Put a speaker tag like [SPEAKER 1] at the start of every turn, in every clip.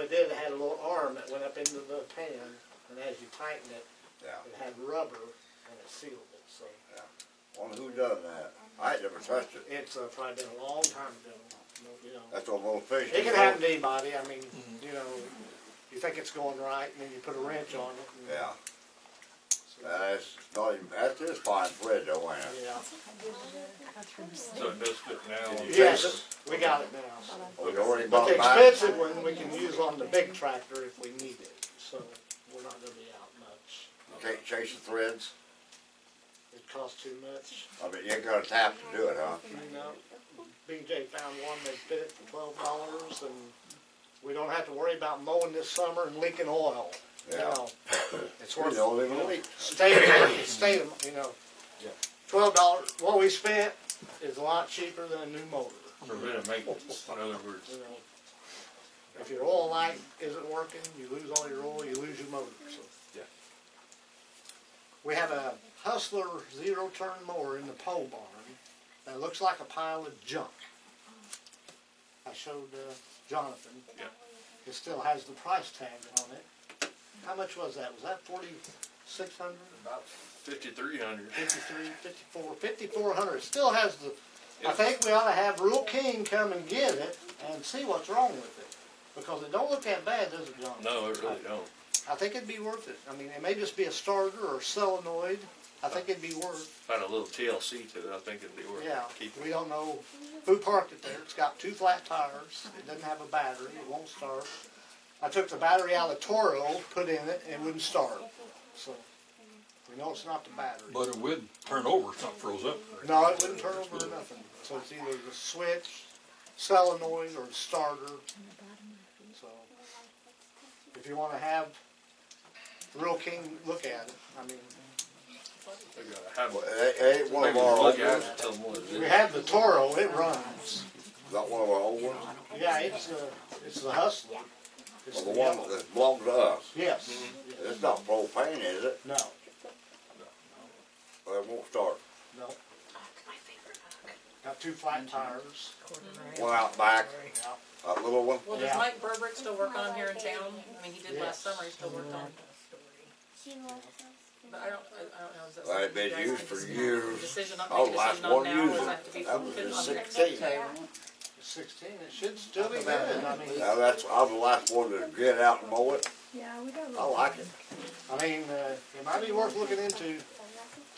[SPEAKER 1] it did, it had a little arm that went up into the pan, and as you tightened it,
[SPEAKER 2] yeah.
[SPEAKER 1] it had rubber and it sealed it, so.
[SPEAKER 2] Wonder who done that? I ain't never touched it.
[SPEAKER 1] It's uh, probably been a long time ago, you know.
[SPEAKER 2] That's on little fish.
[SPEAKER 1] It can happen to anybody, I mean, you know, you think it's going right, and then you put a wrench on it. and-
[SPEAKER 2] Yeah,
[SPEAKER 1] so,
[SPEAKER 2] that's not even, that's just fine thread though, ain't it?
[SPEAKER 1] Yeah,
[SPEAKER 3] So it does fit now.
[SPEAKER 2] Did you
[SPEAKER 1] yes, we got it now. so.
[SPEAKER 2] Oh, you already
[SPEAKER 1] But
[SPEAKER 2] bought
[SPEAKER 1] the
[SPEAKER 2] mine?
[SPEAKER 1] expensive one, we can use on the big tractor if we need it, so we're not gonna be out much.
[SPEAKER 2] Can't chase the threads?
[SPEAKER 1] It costs too much,
[SPEAKER 2] I mean, you ain't got a tap to do it, huh?
[SPEAKER 1] you know? BJ found one, they bid it for twelve dollars, and we don't have to worry about mowing this summer and leaking oil, you
[SPEAKER 2] Yeah.
[SPEAKER 1] know? It's
[SPEAKER 2] We're
[SPEAKER 1] worth
[SPEAKER 2] the
[SPEAKER 1] it.
[SPEAKER 2] only one.
[SPEAKER 1] State, state, you know,
[SPEAKER 3] Yeah.
[SPEAKER 1] twelve dollars, what we spent is a lot cheaper than a new motor,
[SPEAKER 3] For better maintenance, in other words.
[SPEAKER 1] you know? If your oil light isn't working, you lose all your oil, you lose your motor, so.
[SPEAKER 3] Yeah.
[SPEAKER 1] We have a Hustler zero turn mower in the pole barn that looks like a pile of junk. I showed uh, Jonathan.
[SPEAKER 3] Yeah.
[SPEAKER 1] It still has the price tag on it. How much was that? Was that forty-six hundred?
[SPEAKER 3] About fifty-three hundred.
[SPEAKER 1] Fifty-three, fifty-four, fifty-four hundred. It Still has the, I think we ought to have Rule King come and get it and see what's wrong with it. Because it don't look that bad, does it, Jonathan?
[SPEAKER 3] No, it really don't.
[SPEAKER 1] I think it'd be worth it. I mean, it may just be a starter or solenoid. I think it'd be worth,
[SPEAKER 3] Had a little TLC to it, I think it'd be worth
[SPEAKER 1] yeah.
[SPEAKER 3] keeping.
[SPEAKER 1] We don't know who parked it there. It's got two flat tires. It doesn't have a battery. It won't start. I took the battery out of the Toro, put in it, and it wouldn't start. So, we know it's not the battery.
[SPEAKER 4] But it would turn over if something froze up.
[SPEAKER 1] No, it wouldn't turn over or nothing. So it's either the switch, solenoid, or the starter. So if you wanna have Real King look at it, I mean,
[SPEAKER 3] They gotta have
[SPEAKER 2] Well,
[SPEAKER 3] it.
[SPEAKER 2] it ain't- Ain't one
[SPEAKER 3] Maybe
[SPEAKER 2] of our
[SPEAKER 3] look
[SPEAKER 2] old
[SPEAKER 3] at
[SPEAKER 2] ones?
[SPEAKER 3] it, tell them what it
[SPEAKER 1] we
[SPEAKER 3] is.
[SPEAKER 1] have the Toro, it runs.
[SPEAKER 2] Not one of our old ones?
[SPEAKER 1] Yeah, it's uh it's the Hustler. It's
[SPEAKER 2] Well, the
[SPEAKER 1] the
[SPEAKER 2] one
[SPEAKER 1] yellow.
[SPEAKER 2] that belonged to us.
[SPEAKER 1] Yes,
[SPEAKER 2] It's not propane, is it?
[SPEAKER 1] no,
[SPEAKER 2] Well, it won't start.
[SPEAKER 1] no. Got two
[SPEAKER 2] Mm-hmm.
[SPEAKER 1] flat tires.
[SPEAKER 2] One out back,
[SPEAKER 1] Yeah.
[SPEAKER 2] that little one.
[SPEAKER 5] Well,
[SPEAKER 1] Yeah.
[SPEAKER 5] does Mike Burbrick still work on here in town? I mean, he did last
[SPEAKER 1] Yes.
[SPEAKER 5] summer, he still worked on, but I don't, I I don't know, is that
[SPEAKER 2] Well,
[SPEAKER 5] something
[SPEAKER 2] I've been
[SPEAKER 5] you guys
[SPEAKER 2] used
[SPEAKER 5] can
[SPEAKER 2] for
[SPEAKER 5] just-
[SPEAKER 2] years.
[SPEAKER 5] Decision,
[SPEAKER 2] I
[SPEAKER 5] not
[SPEAKER 2] was
[SPEAKER 5] make a
[SPEAKER 2] last
[SPEAKER 5] decision on
[SPEAKER 2] one
[SPEAKER 5] now, or does
[SPEAKER 2] using
[SPEAKER 5] that
[SPEAKER 2] it.
[SPEAKER 5] have to be
[SPEAKER 2] That was
[SPEAKER 5] put
[SPEAKER 2] in
[SPEAKER 5] on the next
[SPEAKER 2] sixteen.
[SPEAKER 5] table?
[SPEAKER 1] Sixteen, it should still be good, I mean,
[SPEAKER 2] Now, that's, I'm the last one to get out and mow it.
[SPEAKER 6] Yeah, we got.
[SPEAKER 2] I like it.
[SPEAKER 1] I mean, uh, it might be worth looking into.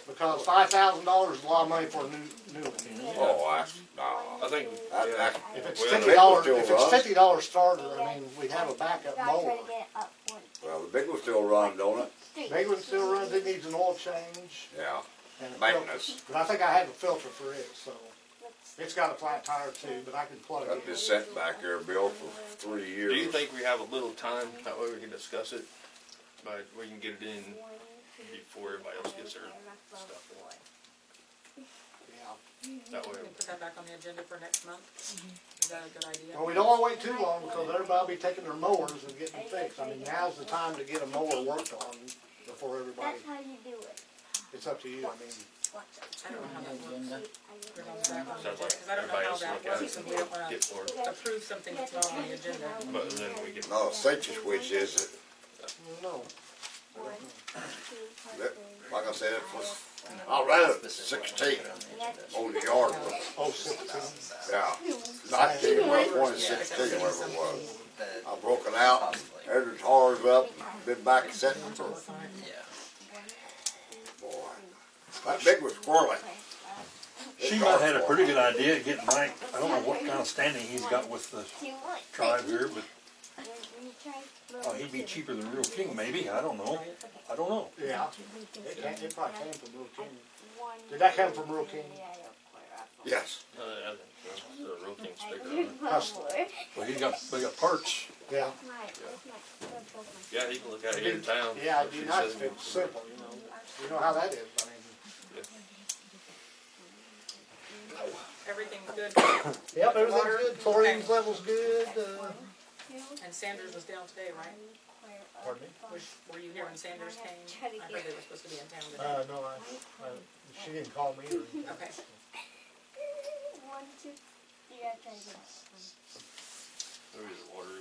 [SPEAKER 1] Because five thousand dollars is a lot of money for a new, new one.
[SPEAKER 2] Oh, I, no.
[SPEAKER 3] I think,
[SPEAKER 2] That,
[SPEAKER 3] yeah,
[SPEAKER 2] that,
[SPEAKER 1] If it's
[SPEAKER 3] Well,
[SPEAKER 1] fifty
[SPEAKER 3] they
[SPEAKER 1] dollars,
[SPEAKER 2] still
[SPEAKER 1] if it's
[SPEAKER 2] run.
[SPEAKER 1] fifty dollar starter, I mean, we'd have a backup mower.
[SPEAKER 2] well, the big one still run, don't it?
[SPEAKER 1] Big one still runs, it needs an oil change
[SPEAKER 2] Yeah.
[SPEAKER 1] and a filter.
[SPEAKER 2] Maintenance.
[SPEAKER 1] But I think I have a filter for it, so. It's got a flat tire too, but I can plug
[SPEAKER 2] I've
[SPEAKER 1] it in.
[SPEAKER 2] been sitting back there, Bill, for three years.
[SPEAKER 3] do you think we have a little time, that way we can discuss it? But we can get it in before everybody else gets their stuff
[SPEAKER 1] Yeah.
[SPEAKER 3] in. That way,
[SPEAKER 5] We can put that back on the agenda for next month, is that a good idea?
[SPEAKER 1] Well, we don't wanna wait too long because everybody'll be taking their mowers and getting fixed. I mean, now's the time to get a mower worked on before everybody,
[SPEAKER 6] That's how you do it.
[SPEAKER 1] it's up to you, I mean.
[SPEAKER 5] I don't know how that works. Put it on the back on
[SPEAKER 3] sounds
[SPEAKER 5] the agenda,
[SPEAKER 3] like
[SPEAKER 5] 'cause I don't know
[SPEAKER 3] everybody
[SPEAKER 5] how
[SPEAKER 3] else
[SPEAKER 5] that
[SPEAKER 3] look at it
[SPEAKER 5] works, and we don't
[SPEAKER 3] and
[SPEAKER 5] wanna
[SPEAKER 3] get for it.
[SPEAKER 5] approve something that's not on the agenda.
[SPEAKER 3] But then we can,
[SPEAKER 2] No, such as which is it?
[SPEAKER 1] No,
[SPEAKER 2] That- Like I said, it was, I ran it sixteen on the yard, with-
[SPEAKER 1] oh, sixteen.
[SPEAKER 2] yeah. Nineteen, well, twenty sixteen, whatever it was. I broke it out, had the tires up, been back sitting for. Boy, that big was squirrely.
[SPEAKER 4] She might had a pretty good idea of getting Mike, I don't know what kind of standing he's got with the tribe here, but, oh, he'd be cheaper than Real King, maybe, I don't know. I don't know.
[SPEAKER 1] Yeah, it came, it probably came from Real King. Did that come from Real King?
[SPEAKER 2] Yes,
[SPEAKER 3] uh, I think, the real thing's bigger on it.
[SPEAKER 4] But he's got, they got parts.
[SPEAKER 1] Yeah.
[SPEAKER 3] Yeah, he can look out here in town.
[SPEAKER 1] Yeah,
[SPEAKER 3] She
[SPEAKER 1] it'd be nice if
[SPEAKER 3] said-
[SPEAKER 1] it was simple, you know, you know how that is, I mean.
[SPEAKER 5] Everything's good,
[SPEAKER 1] Yep,
[SPEAKER 5] everything's good. Chlorine
[SPEAKER 1] level's good, uh,
[SPEAKER 5] and Sanders was down today, right?
[SPEAKER 1] Pardon me?
[SPEAKER 5] Was, were you here when Sanders came? I heard they were supposed to be in town
[SPEAKER 1] Uh,
[SPEAKER 5] today.
[SPEAKER 1] no, I, I, she didn't call me or anything.
[SPEAKER 5] Okay.
[SPEAKER 6] One, two, three, I try to get.
[SPEAKER 3] Maybe the water